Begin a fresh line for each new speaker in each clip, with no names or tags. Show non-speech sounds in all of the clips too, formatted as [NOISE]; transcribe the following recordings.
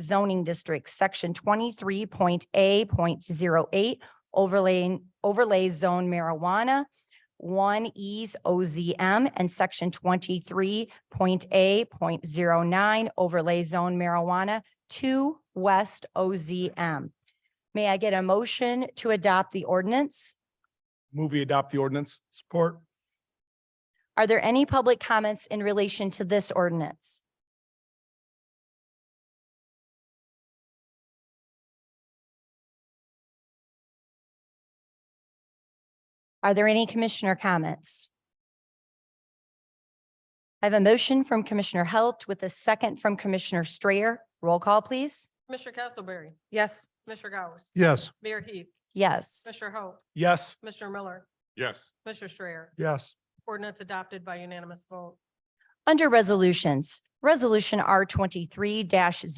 zoning district, section twenty-three point A point zero eight, overlaying, overlay zone marijuana, one E's OZM, and section twenty-three point A point zero nine, overlay zone marijuana, two West OZM. May I get a motion to adopt the ordinance?
Move we adopt the ordinance. Support.
Are there any public comments in relation to this ordinance? Are there any commissioner comments? I have a motion from Commissioner Halt with a second from Commissioner Strayer. Roll call, please.
Mr. Castleberry.
Yes.
Mr. Gauss.
Yes.
Mayor Heath.
Yes.
Mr. Hope.
Yes.
Mr. Miller.
yes,
Mr. Strayer.
Yes.
Ordinance adopted by unanimous vote.
Under resolutions, Resolution R twenty-three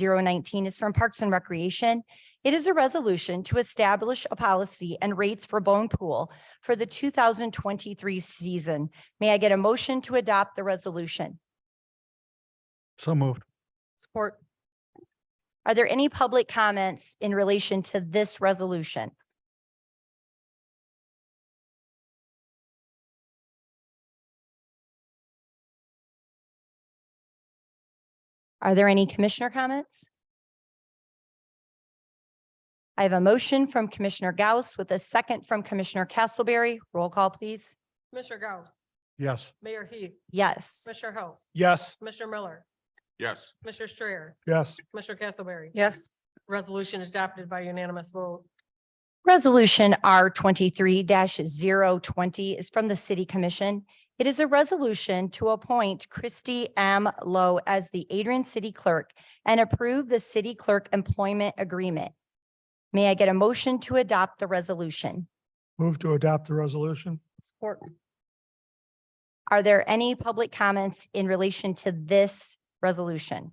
19 is from Parks and Recreation. It is a resolution to establish a policy and rates for Bone Pool for the two thousand twenty-three season. May I get a motion to adopt the resolution?
So moved.
Support.
Are there any public comments in relation to this resolution? Are there any commissioner comments? I have a motion from Commissioner Gauss with a second from Commissioner Castleberry. Roll call, please.
Mr. Gauss.
Yes.
Mayor Heath.
Yes.
Mr. Hope.
Yes.
Mr. Miller.
yes,
Mr. Strayer.
Yes.
Mr. Castleberry.
Yes.
Resolution adopted by unanimous vote.
Resolution R twenty-three 20 is from the City Commission. It is a resolution to appoint Christy M. Lowe as the Adrian City Clerk and approve the city clerk employment agreement. May I get a motion to adopt the resolution?
Move to adopt the resolution.
Support.
Are there any public comments in relation to this resolution?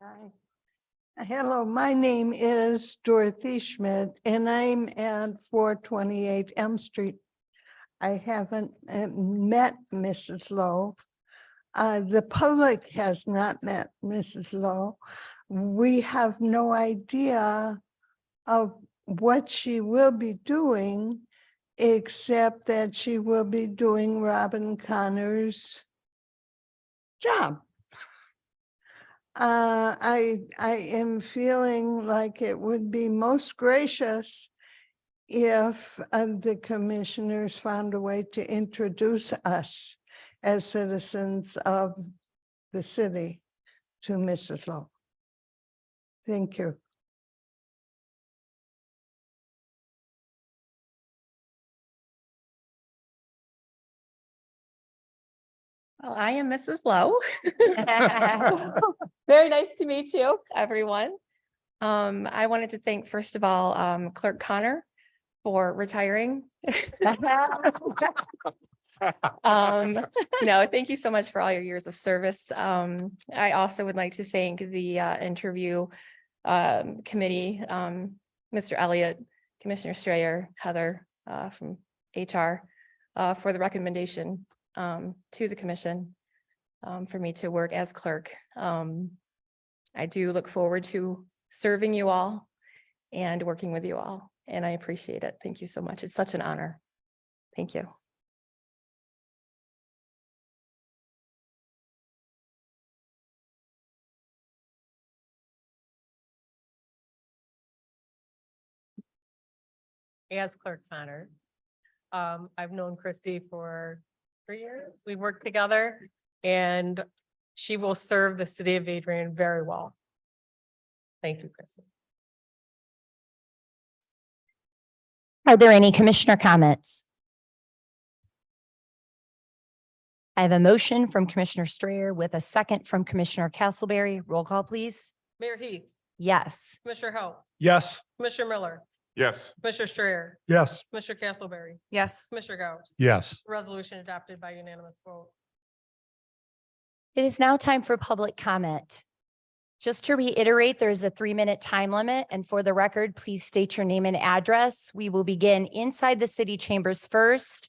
Hi. Hello, my name is Dorothy Schmidt and I'm at four twenty-eight Elm Street. I haven't uh, met Mrs. Lowe. Uh, the public has not met Mrs. Lowe. We have no idea of what she will be doing, except that she will be doing Robin Connor's job. Uh, I, I am feeling like it would be most gracious if uh, the commissioners found a way to introduce us as citizens of the city to Mrs. Lowe. Thank you.
Well, I am Mrs. Lowe. [LAUGHS] Very nice to meet you, everyone. Um, I wanted to thank, first of all, um, Clerk Connor for [LAUGHS] retiring. Um, no, thank you so much for all your years of service. Um, I also would like to thank the uh, interview um, committee, um, Mr. Elliott, Commissioner Strayer, Heather uh, from HR uh, for the recommendation um, to the commission um, for me to work as clerk. Um, I do look forward to serving you all and working with you all, and I appreciate it. Thank you so much. It's such an honor. Thank you.
As Clerk Connor. Um, I've known Christy for three years. We've worked together and she will serve the city of Adrian very well. Thank you, Christy.
Are there any commissioner comments? I have a motion from Commissioner Strayer with a second from Commissioner Castleberry. Roll call, please.
Mayor Heath.
Yes.
Mr. Hope.
Yes.
Mr. Miller.
yes,
Mr. Strayer.
Yes.
Mr. Castleberry.
Yes.
Mr. Gauss.
Yes.
Resolution adopted by unanimous vote.
It is now time for public comment. Just to reiterate, there is a three-minute time limit, and for the record, please state your name and address. We will begin inside the city chambers first.